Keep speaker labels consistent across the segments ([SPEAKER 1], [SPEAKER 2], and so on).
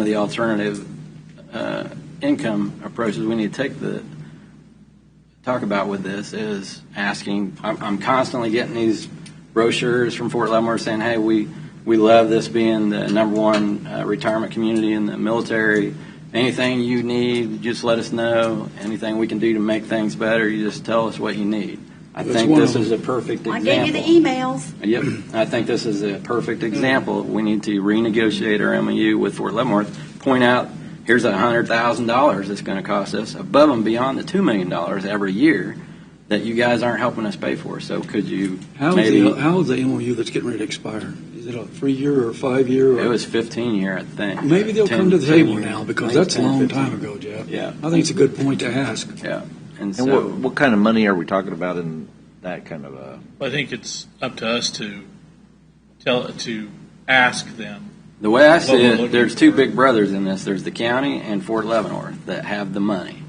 [SPEAKER 1] of the alternative uh, income approaches we need to take the, talk about with this is asking, I'm I'm constantly getting these brochures from Fort Leavenworth saying, hey, we, we love this being the number one uh, retirement community in the military. Anything you need, just let us know. Anything we can do to make things better, you just tell us what you need. I
[SPEAKER 2] That's
[SPEAKER 1] think
[SPEAKER 2] one
[SPEAKER 1] this
[SPEAKER 2] of
[SPEAKER 1] is a perfect
[SPEAKER 3] I
[SPEAKER 1] example.
[SPEAKER 3] gave you the emails.
[SPEAKER 1] Yep, I think this is a perfect example. We need to renegotiate our MOU with Fort Leavenworth, point out, here's a hundred thousand dollars that's gonna cost us, above and beyond the two million dollars every year that you guys aren't helping us pay for, so could you
[SPEAKER 2] How is
[SPEAKER 1] maybe,
[SPEAKER 2] the, how is the MOU that's getting ready to expire? Is it a three-year or a five-year?
[SPEAKER 1] it
[SPEAKER 2] or-
[SPEAKER 1] was fifteen year, I think.
[SPEAKER 2] Maybe they'll
[SPEAKER 1] 10
[SPEAKER 2] come to the
[SPEAKER 1] 10
[SPEAKER 2] table
[SPEAKER 1] year.
[SPEAKER 2] now,
[SPEAKER 1] I
[SPEAKER 2] because
[SPEAKER 1] think
[SPEAKER 2] that's
[SPEAKER 1] it's
[SPEAKER 2] a
[SPEAKER 1] 10,
[SPEAKER 2] long
[SPEAKER 1] 15.
[SPEAKER 2] time ago, Jeff.
[SPEAKER 1] Yeah,
[SPEAKER 2] I think it's a good point to ask.
[SPEAKER 1] and
[SPEAKER 4] And what,
[SPEAKER 1] so,
[SPEAKER 4] what kind of money are we talking about in that kind of a?
[SPEAKER 5] I think it's up to us to tell, to ask them.
[SPEAKER 1] the way I
[SPEAKER 5] what
[SPEAKER 1] see
[SPEAKER 5] we're
[SPEAKER 1] it,
[SPEAKER 5] looking
[SPEAKER 1] there's two
[SPEAKER 5] for.
[SPEAKER 1] big brothers in this, there's the county and Fort Leavenworth that have the money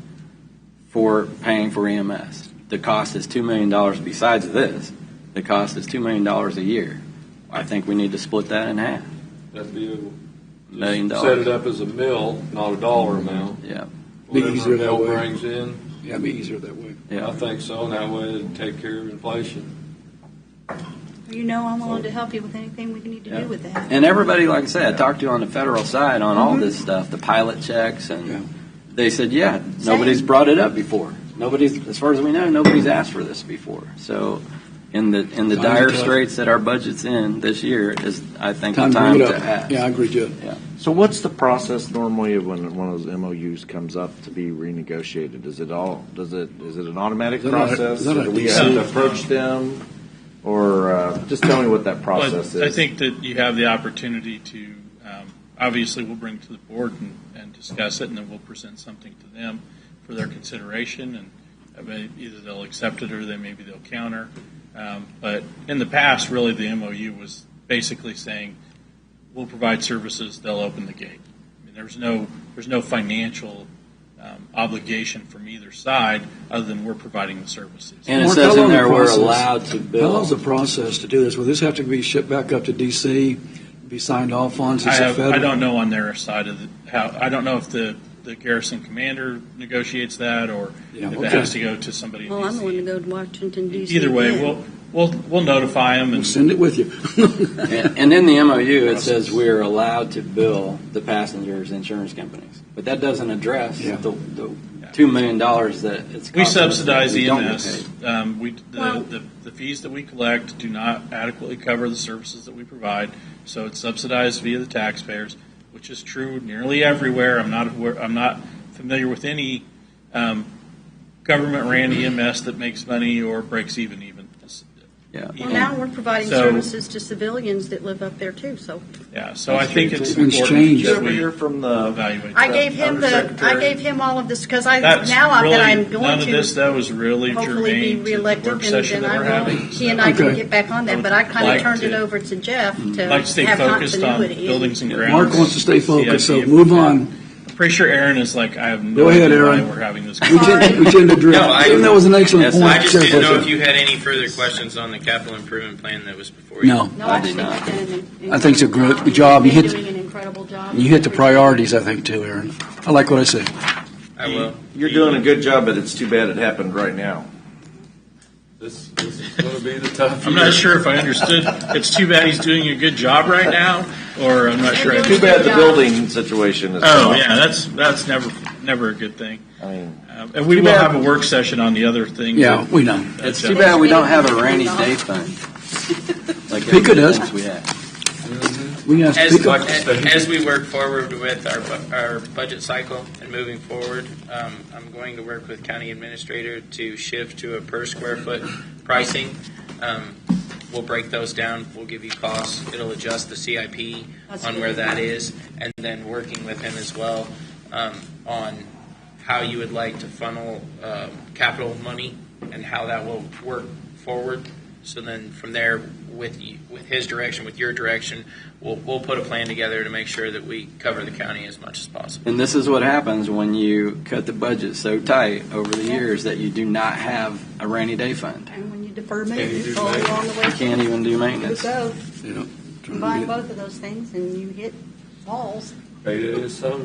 [SPEAKER 1] for paying for EMS. The cost is $2 million besides this. The cost is $2 million a year. I think we need to split that in half,
[SPEAKER 6] That'd be, a-
[SPEAKER 1] million
[SPEAKER 6] set it
[SPEAKER 1] dollars.
[SPEAKER 6] up as a mill, not a dollar amount.
[SPEAKER 1] Yeah,
[SPEAKER 2] Be
[SPEAKER 6] Whatever
[SPEAKER 2] easier
[SPEAKER 6] a
[SPEAKER 2] that
[SPEAKER 6] mill
[SPEAKER 2] way.
[SPEAKER 6] Brings in,
[SPEAKER 2] Yeah, it'd be easier that way.
[SPEAKER 6] I
[SPEAKER 1] yeah.
[SPEAKER 6] think so, and that way it'd take care of inflation.
[SPEAKER 3] You know I'm willing to help you with anything we need to do with that.
[SPEAKER 1] And everybody, like I said, I talked to on the federal side on all this stuff, the pilot checks,
[SPEAKER 2] Mm-hmm. Yeah.
[SPEAKER 1] and they said, yeah, nobody's brought it up before. Nobody's, as far as we know, nobody's asked for this before. So in the, in the
[SPEAKER 2] Time's
[SPEAKER 1] dire
[SPEAKER 2] tough.
[SPEAKER 1] straits that our budget's in this year is, I think, the
[SPEAKER 2] Time
[SPEAKER 1] time
[SPEAKER 2] bring it
[SPEAKER 1] to
[SPEAKER 2] up.
[SPEAKER 1] ask.
[SPEAKER 2] Yeah, I agree, Jeff.
[SPEAKER 4] So what's the process normally of when one of those MOUs comes up to be renegotiated? Is it all? Does it? Is it an
[SPEAKER 2] Is
[SPEAKER 4] automatic
[SPEAKER 2] that a-
[SPEAKER 4] process?
[SPEAKER 2] is that a
[SPEAKER 4] do we have
[SPEAKER 2] consent?
[SPEAKER 4] to approach them, or uh, just tell me what that
[SPEAKER 5] But
[SPEAKER 4] process
[SPEAKER 5] I
[SPEAKER 4] is?
[SPEAKER 5] think that you have the opportunity to, um, obviously, we'll bring it to the board and, and discuss it, and then we'll present something to them for their consideration, and I mean, either they'll accept it or they, maybe they'll counter. Um, But in the past, really, the MOU was basically saying, we'll provide services, they'll open the gate. I mean, there's no, there's no financial um, obligation from either side, other than we're providing the services.
[SPEAKER 1] And it
[SPEAKER 2] Mark,
[SPEAKER 1] says
[SPEAKER 2] how long
[SPEAKER 1] in there
[SPEAKER 2] the
[SPEAKER 1] we're
[SPEAKER 2] process-
[SPEAKER 1] allowed to
[SPEAKER 2] How long's the
[SPEAKER 1] bill.
[SPEAKER 2] process to do this? Will this have to be shipped back up to DC, be signed off on
[SPEAKER 5] I,
[SPEAKER 2] since it's
[SPEAKER 5] have,
[SPEAKER 2] federal?
[SPEAKER 5] I don't know on their side of the, how, I don't know if the, the garrison commander negotiates that or
[SPEAKER 2] Yeah,
[SPEAKER 5] if
[SPEAKER 2] okay.
[SPEAKER 5] it has to go to somebody in
[SPEAKER 7] Well, I'm going to
[SPEAKER 5] DC.
[SPEAKER 7] go to Washington DC.
[SPEAKER 5] Either way,
[SPEAKER 7] then.
[SPEAKER 5] we'll, we'll, we'll notify them
[SPEAKER 2] We'll
[SPEAKER 5] and
[SPEAKER 2] Send it with you.
[SPEAKER 1] And and in the MOU, it says we're allowed to bill the passengers' insurance companies. But that doesn't address
[SPEAKER 2] Yeah.
[SPEAKER 1] the, the two million dollars that it's costing.
[SPEAKER 5] we
[SPEAKER 1] us that
[SPEAKER 5] subsidize
[SPEAKER 1] we
[SPEAKER 5] the
[SPEAKER 1] don't get
[SPEAKER 5] EMS. Um, we, the, the, the fees that we collect do not adequately cover the services that we provide. So it's subsidized via the taxpayers, which is true nearly everywhere. I'm not aware, I'm not familiar with any, um, government ran EMS that makes money or breaks even even.
[SPEAKER 1] Yeah.
[SPEAKER 3] Well, now we're providing
[SPEAKER 5] So-
[SPEAKER 3] services to civilians that live up there too, so.
[SPEAKER 5] Yeah, so I think it's
[SPEAKER 2] Things
[SPEAKER 5] important
[SPEAKER 2] change.
[SPEAKER 4] Did you
[SPEAKER 5] that
[SPEAKER 4] ever
[SPEAKER 5] we
[SPEAKER 4] hear from the?
[SPEAKER 5] evaluate.
[SPEAKER 3] I
[SPEAKER 5] that.
[SPEAKER 3] gave him the, I
[SPEAKER 4] Undersecretary.
[SPEAKER 3] gave him all of this, because I,
[SPEAKER 5] That's
[SPEAKER 3] now I-
[SPEAKER 5] really-
[SPEAKER 3] that I'm going
[SPEAKER 5] None of this,
[SPEAKER 3] to
[SPEAKER 5] that was really
[SPEAKER 3] hopefully be
[SPEAKER 5] germane to the
[SPEAKER 3] reelected,
[SPEAKER 5] work
[SPEAKER 3] and
[SPEAKER 5] session
[SPEAKER 3] then
[SPEAKER 5] that we're
[SPEAKER 3] I will,
[SPEAKER 5] having.
[SPEAKER 3] he and I can
[SPEAKER 2] Okay.
[SPEAKER 3] get back on
[SPEAKER 5] I
[SPEAKER 3] that,
[SPEAKER 5] would
[SPEAKER 3] but I kind
[SPEAKER 5] like
[SPEAKER 3] of turned it
[SPEAKER 5] to-
[SPEAKER 3] over to Jeff to
[SPEAKER 5] I'd Like to stay
[SPEAKER 3] have
[SPEAKER 5] focused on
[SPEAKER 3] continuity.
[SPEAKER 5] buildings and grounds.
[SPEAKER 2] Mark wants to stay focused, so
[SPEAKER 5] CIP.
[SPEAKER 2] move on.
[SPEAKER 5] I'm Pretty sure Aaron is like, I have
[SPEAKER 2] Go
[SPEAKER 5] no
[SPEAKER 2] ahead,
[SPEAKER 5] idea why
[SPEAKER 2] Aaron.
[SPEAKER 5] we're having this.
[SPEAKER 2] We tend, we tend to drift.
[SPEAKER 8] No, I-
[SPEAKER 2] Even that was an excellent
[SPEAKER 1] Yes,
[SPEAKER 2] point.
[SPEAKER 1] I
[SPEAKER 8] I just
[SPEAKER 2] Jeff,
[SPEAKER 8] didn't know
[SPEAKER 2] wasn't
[SPEAKER 8] if you had any further questions on the capital improvement plan that was before
[SPEAKER 2] it?
[SPEAKER 8] you.
[SPEAKER 2] No,
[SPEAKER 3] No, I
[SPEAKER 1] I did
[SPEAKER 3] think
[SPEAKER 1] not.
[SPEAKER 3] you've done an
[SPEAKER 2] I think it's a
[SPEAKER 3] incredible
[SPEAKER 2] great
[SPEAKER 3] job.
[SPEAKER 2] job. You
[SPEAKER 3] You've been
[SPEAKER 2] hit-
[SPEAKER 3] doing an incredible job.
[SPEAKER 2] you hit the priorities, I think, too, Aaron. I like what I said.
[SPEAKER 8] I will.
[SPEAKER 4] You're doing a good job, but it's too bad it happened right now.
[SPEAKER 6] This, this is gonna be the tough
[SPEAKER 5] I'm
[SPEAKER 6] year.
[SPEAKER 5] not sure if I understood. It's too bad he's doing a good job right now, or I'm not sure. I-
[SPEAKER 4] Too bad the building situation is.
[SPEAKER 5] Oh, yeah, that's, that's never, never a good thing.
[SPEAKER 4] I mean,
[SPEAKER 5] Um, And we will have a work session on the other things.
[SPEAKER 2] Yeah,
[SPEAKER 5] that,
[SPEAKER 2] we know.
[SPEAKER 5] uh,
[SPEAKER 1] It's
[SPEAKER 5] Jeff-
[SPEAKER 1] too bad we don't have a rainy day fund. Like
[SPEAKER 2] Pika does.
[SPEAKER 1] everything else We have.
[SPEAKER 2] We can ask
[SPEAKER 8] As,
[SPEAKER 2] people.
[SPEAKER 8] as we work forward with our, bu- our budget cycle and moving forward, um, I'm going to work with county administrator to shift to a per square foot pricing. Um, we'll break those down. We'll give you costs. It'll adjust the CIP
[SPEAKER 3] That's
[SPEAKER 8] on
[SPEAKER 3] good.
[SPEAKER 8] where that is, and then working with him as well um, on how you would like to funnel um, capital money and how that will work forward. So then from there, with you, with his direction, with your direction, we'll, we'll put a plan together to make sure that we cover the county as much as possible.
[SPEAKER 1] And this is what happens when you cut the budget so tight over the years that you do not have a rainy day fund.
[SPEAKER 3] And when you defer
[SPEAKER 6] Can you
[SPEAKER 3] maintenance,
[SPEAKER 6] do
[SPEAKER 3] it's all
[SPEAKER 6] maintenance?
[SPEAKER 3] along the way.
[SPEAKER 1] You can't even do
[SPEAKER 3] You
[SPEAKER 1] maintenance.
[SPEAKER 3] go,
[SPEAKER 2] You know, trying to
[SPEAKER 3] combine
[SPEAKER 2] get-
[SPEAKER 3] both of those things, and you hit walls.
[SPEAKER 6] It is so